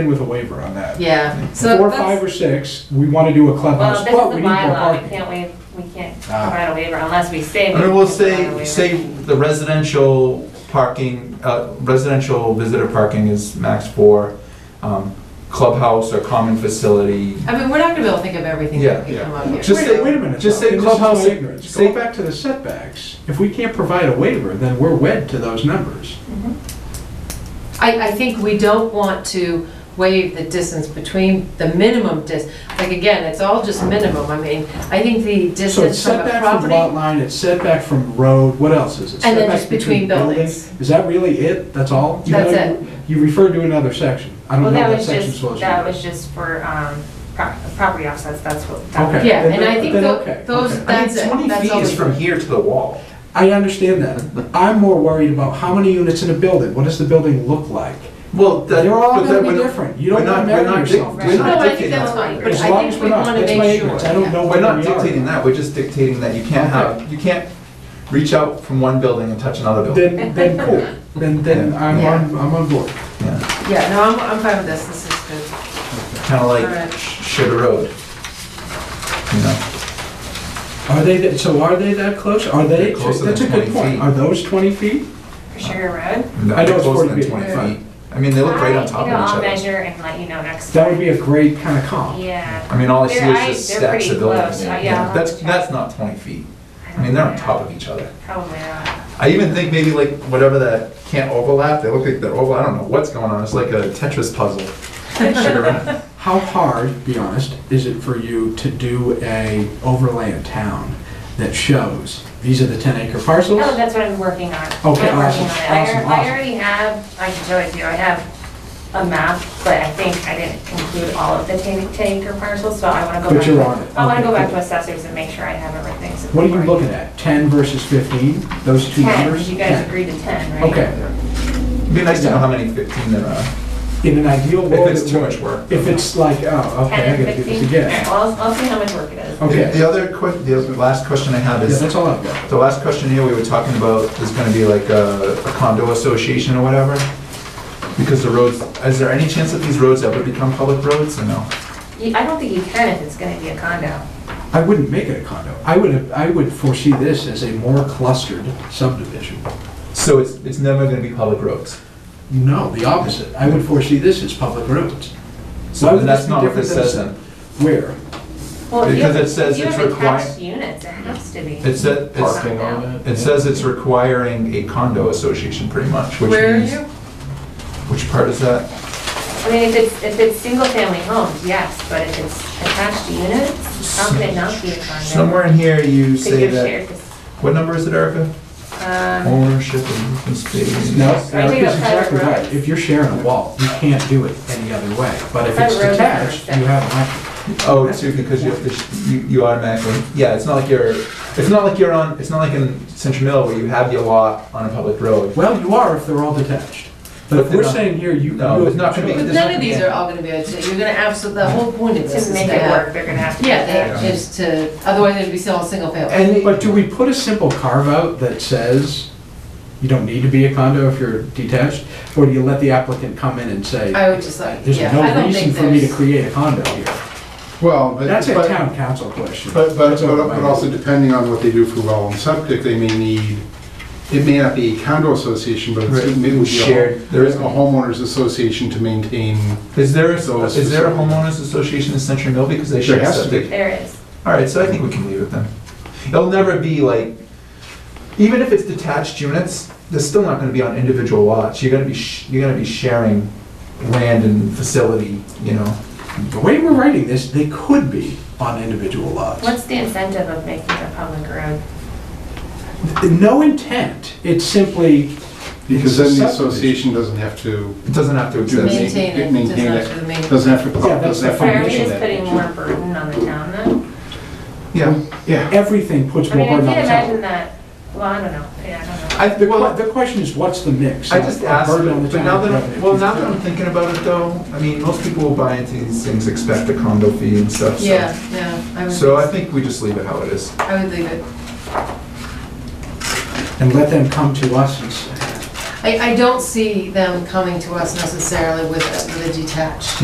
in with a waiver on that. Yeah, so Four, that's- five, or six, we want to do a Well, clubhouse, this is but we the need more bylaw, we parking. can't waive, we can't Ah. provide a waiver unless we say. I mean, we'll we can provide a say, waiver. say the residential parking, uh, residential visitor parking is max four, um, clubhouse or common facility. I mean, we're not gonna be able to think of everything Yeah, that could yeah. come up here. Just Wait- say- Wait a minute. just though, say and this is my clubhouse- ignorance. say- Go back to the setbacks. If we can't provide a waiver, then we're wed to those numbers. I, I think we don't want to waive the distance between the minimum dis, like, again, it's all just minimum, I mean, I think the So it's distance from a setback from lot property. line, it's setback from road, what else is it? And then Setback just between buildings. Is that really it? That's all? You That's know, You referred to another section. I don't know Well, what that that was section just, was. that was just for, um, pro- property offsets, that's what. that Okay. was- Yeah, and I Then- think then tho- okay, okay. those- I mean, That's it. twenty That's feet all is we- from here to the wall. I understand that. I'm more worried about how many units in a building. What does the building look like? Well, that. They're all but gonna that be we're not- different. You don't we're not- wanna marry we're not dic- yourself. we're No, I not think dictating that's that. fine, but As I long as think we're we not- wanna that's my make sure. ignorance. I don't yeah. know We're where not we are. dictating that, we're just dictating that you can't have, you can't reach out from one building and touch another building. Then, then cool. Then, then I'm Yeah. on, I'm on board. Yeah, no, I'm, I'm fine with this, this is good. Kind of like Alright. Sh- Sugar Road. You know, Are they, that- so are they that close? Are they, They're closer that's a than good 20 point. feet. Are those 20 feet? Sugar Road. I know it's closer than 40 feet. 20 Yeah. feet. I mean, they look right on I- top you know, I'll of each other. measure and let you know next. That would be time. a great kind of comp. Yeah. I mean, all I see They're- is I- just they're stacks pretty of buildings. close. I- yeah, I'll have That's, to check. that's not 20 feet. I I mean, they're on top of each other. Probably not. I even think maybe like whatever that can't overlap, they look like they're over, I don't know what's going on. It's like a Tetris puzzle. Sugar Road. How hard, be honest, is it for you to do a overlay of town that shows, these are the 10 acre parcels? No, Oh, that's what I'm working on. I'm Okay, working on awesome, it. I awesome, al- I awesome. already have, I can show it to you, I have a map, but I think I didn't include all of the 10 10 acre parcels, so I want to go But back. you're to- on it. I want to Okay, go back cool. to assessors and make sure I have everything. so What are you before I- looking at? 10 versus 15? Those two 10, numbers? you guys 10. agreed to 10, right? Okay. It'd be nice to know how many 15 there are. In an ideal If world. it's it too would- much work. If it's like, oh, okay, I 10 and gotta do this 15? again. Oh. Well, I'll- I'll see how much work it is. Okay. The other que, the other- last question I have Yeah, is, that's all I've got. the last question here, we were talking about is gonna be like a a condo association or whatever? Because the roads, is there any chance that these roads ever become public roads or no? You- I don't think you can if it's going to be a condo. I wouldn't make it a condo. I would, I would foresee this as a more clustered subdivision. So it's, it's never gonna be public roads? No, the opposite. I would foresee this as public roads. Why So would then this that's be not what different this than says a- then. Where? Well, if you Because have- it says if you it's have required- attached Units, it has to be. It said, it's, Parking on it? it says it's requiring a condo association pretty much, which Where are means- you? Which part is that? I mean, if it's, if it's single-family homes, yes, but if it's attached to units, how can it not be a condo? Somewhere in here you Because say you're that, shared, this- what number is it, Erica? um, Ownership of open space. No, Are you Eric talking is about exactly private right. roads? If you're sharing a wall, you can't do it any other way. But if it's Private roads are detached, you separate. have an option. Oh, too, because you have to, sh- you, you automatically, yeah, it's not like you're, it's not like you're on, it's not like in Central Mill where you have your lot on a public road. Well, you are if they're all detached. But But if they're we're not- saying here, you can No, do it. it's not gonna be- But There's none nothing of these there. are all gonna be, able to- you're gonna absolutely, the whole point Oh, of this To is make to it work, have. they're gonna have to. Yeah, have that- is to, otherwise it'd be still a single family. And, But do we put a simple carve out that says you don't need to be a condo if you're detached? Or do you let the applicant come in and say, I would just like, there's yeah, I no don't reason think for me to there's. create a condo here? Well, but, That's a but, town council question. but, but That's over my but also head. depending on what they do for well and septic, they may need, it may not be a condo association, but it's, Right. maybe we Shared. should, there is a homeowners association to maintain. Is there, a- Those- is there a homeowners association in Century Mill because they There share has to septic? it. There is. All right, so I think we can leave it then. It'll never be like, even if it's detached units, they're still not gonna be on individual lots. You're gonna be, sh- you're gonna be sharing land and facility, you know? The way we're writing this, they could be on individual lots. What's the incentive of making it a public road? No intent, it's simply. Because then the Subdivision. association doesn't have to. It doesn't have to do exist. Maintain it, maintain does not do the main- Doesn't have to. Yeah, that's doesn't the have to Or Are we Financial mention just that. putting more burden on the town then? Yeah. Yeah, Everything puts I more mean, I burden on can't the imagine town. that, well, I don't know, yeah, I I, The que- well, The question is, what's the mix? I just A asked, burden on the but town now that, and I'm- revenue. well, now that I'm thinking about it though, I mean, most people will buy into these things, expect a condo fee and stuff, so. Yeah, yeah, I So I would, think we just leave it how it is. I would leave it. And let them come to us and say, I, I don't see them coming to us necessarily with a, with a detached.